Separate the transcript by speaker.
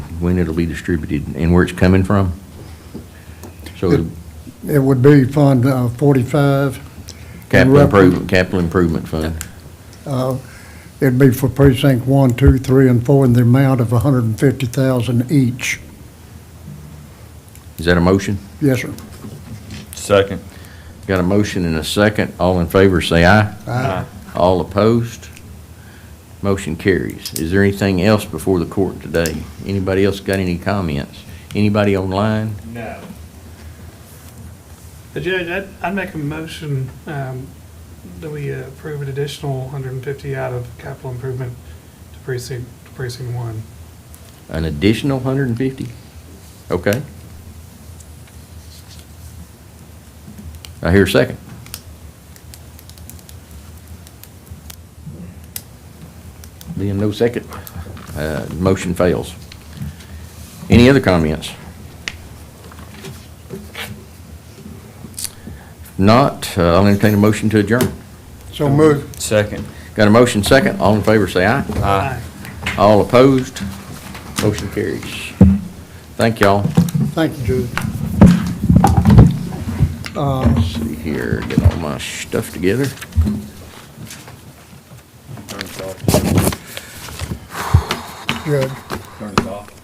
Speaker 1: when it'll be distributed, and where it's coming from? So
Speaker 2: It would be Fund uh, 45.
Speaker 1: capital improvement, capital improvement fund.
Speaker 2: Uh, It'd be for precinct one, two, three, and 4 in the amount of 150,000 each.
Speaker 1: Is that a motion?
Speaker 2: Yes, sir.
Speaker 3: Second.
Speaker 1: Got a motion and a second. All in favor, say aye.
Speaker 2: Aye.
Speaker 1: All opposed? Motion carries. Is there anything else before the court today? Anybody else got any comments? Anybody online?
Speaker 4: No. But Judge, I'd, I'd make a motion um, that we uh, approve an additional 150 out of capital improvement to precinct, to precinct one.
Speaker 1: An additional hundred and fifty? Okay. I hear a second. Being no second, uh, motion fails. Any other comments? Not, uh, I'll entertain a motion to adjourn.
Speaker 2: So moved.
Speaker 3: Second.
Speaker 1: Got a motion second, all in favor say aye.
Speaker 4: Aye.
Speaker 1: All opposed? Motion carries. Thank y'all.
Speaker 2: Thank you, Judge. Uh,
Speaker 1: Let's see here, get all my stuff together.
Speaker 2: Judge,